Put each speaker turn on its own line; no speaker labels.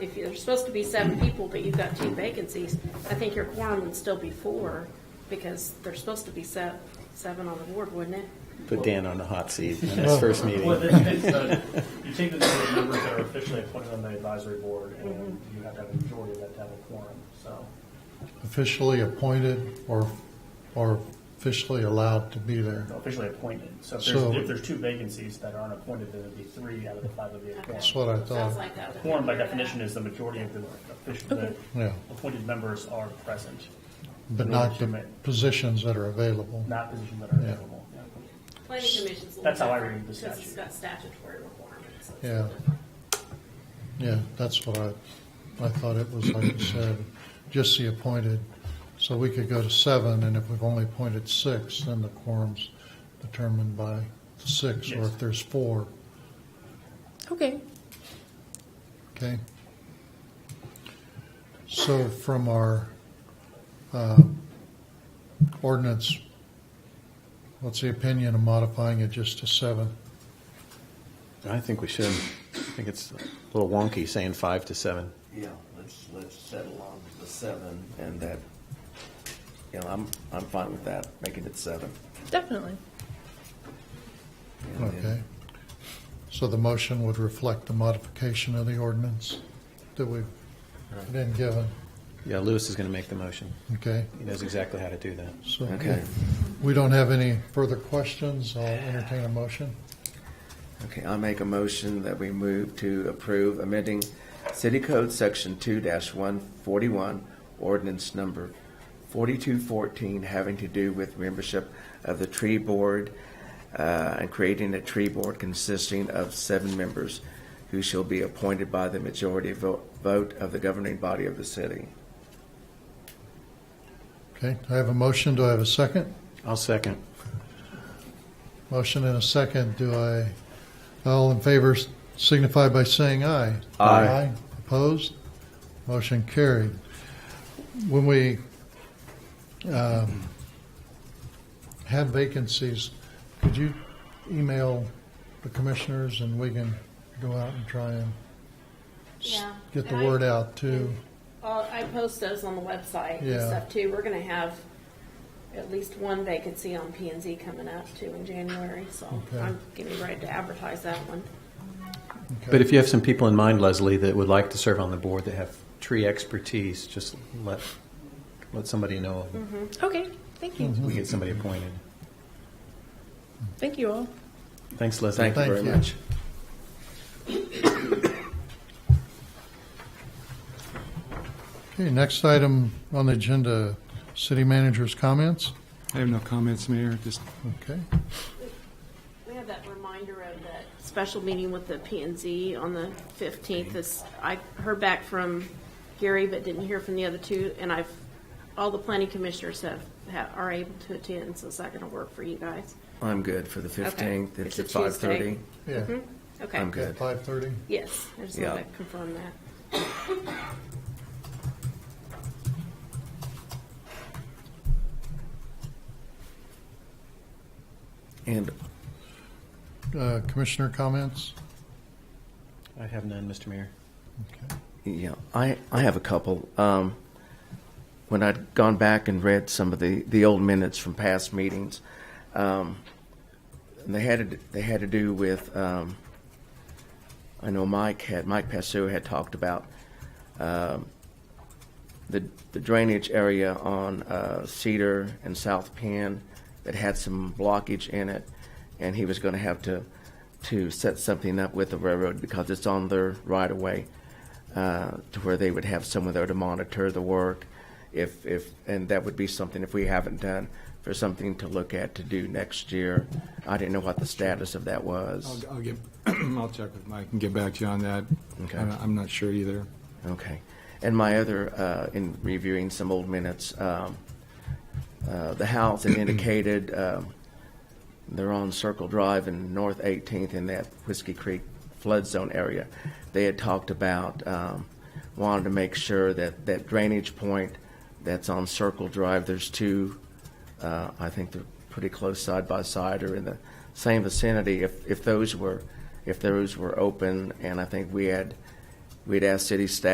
if you're supposed to be seven people, but you've got two vacancies, I think your quorum would still be four, because there's supposed to be se- seven on the board, wouldn't it?
Put Dan on the hot seat in his first
Well,
meeting.
this is, uh, you take the number of members that are officially appointed on the advisory board, and you have to have a majority of that to have a quorum, so.
officially appointed or, or officially allowed to be there.
Officially appointed, so if
So-
there's, if there's two vacancies that aren't appointed, then it'd be three out of the five would be a
That's
quorum.
what I
Sounds
thought,
like that. would-
Quorum by definition is the majority of the official, the
yeah,
appointed members are present,
but not the positions that are available.
not positions that are available.
Planning commission's. a little
That's how I
different,
read the
because it's
statute.
got statutory requirements. so it's a
Yeah.
little different.
Yeah, that's what I, I thought it was, like you said, just the appointed. So we could go to seven, and if we've only appointed six, then the quorum's determined by the six, or
Yes.
if there's four,
Okay.
okay? So from our uh, ordinance, what's the opinion of modifying it just to seven?
I think we should. I think it's a little wonky saying five to seven.
Yeah, let's, let's settle on the seven and that, you know, I'm, I'm fine with that, making it seven.
Definitely.
And then-
Okay. So the motion would reflect the modification of the ordinance that we've been given,
Yeah, Lewis is going to make the motion.
okay?
He knows exactly how to do that.
So
Okay,
if we don't have any further questions, I'll entertain a motion.
okay, I make a motion that we move to approve amending City Code Section two one forty-one, ordinance number forty-two fourteen, having to do with membership of the tree board, uh, and creating a tree board consisting of seven members who shall be appointed by the majority vo- vote of the governing body of the city.
Okay, I have a motion, do I have a second?
I'll second.
Motion and a second, do I, all in favor signify by saying aye.
Aye.
Opposed? Motion carried. When we um, have vacancies, could you email the commissioners and we can go out and try and s-
Yeah.
get the
And I-
word out too?
Uh, I post those on the website and
Yeah.
stuff too. We're gonna have at least one vacancy on P and Z coming up too in January, so
Okay.
I'm getting ready to advertise that one.
Okay.
But if you have some people in mind, Leslie, that would like to serve on the board that have tree expertise, just let, let somebody know.
Okay. Thank you.
Mm-hmm.
Mm-hmm.
We get somebody appointed.
Thank you all.
Thanks, Leslie.
Thank you very
Thank you.
much.
Okay, next item on the agenda, city manager's comments.
I have no comments, Mayor, just
Okay,
We have that reminder of that special meeting with the P and Z on the fifteenth. This, I heard back from Gary, but didn't hear from the other two, and I've, all the planning commissioners have, ha are able to attend, so is that gonna work for you guys?
I'm good for the 15th.
It's
It's
a
at 5:30.
Tuesday.
yeah.
Okay.
I'm good.
Five thirty?
Yes, I just wanted
Yeah.
to confirm that.
And
Uh, Commissioner comments?
I have none, Mr. Mayor.
Okay.
Yeah, I, I have a couple. Um, when I'd gone back and read some of the, the old minutes from past meetings, um, and they had to, they had to do with. Um, I know Mike had Mike Passu had talked about um, the the drainage area on uh, Cedar and South Penn that had some blockage in it, and he was going to have to to set something up with the railroad because it's on their right of way uh, to where they would have someone there to monitor the work. If, if, and that would be something, if we haven't done, for something to look at to do next year. I didn't know what the status of that
I'll,
was.
I'll get, I'll check with Mike and get back to you on that.
Okay.
I'm, I'm not sure either.
Okay. And my other, uh, in reviewing some old minutes, um, uh, the house had indicated, um, they're on Circle Drive and North 18th in that Whiskey Creek flood zone area. They had talked about, um, wanted to make sure that that drainage point that's on Circle Drive, there's two, uh, I think they're pretty close side by side or in the same vicinity. If, if those were, if those were open, and I think we had, we'd asked city staff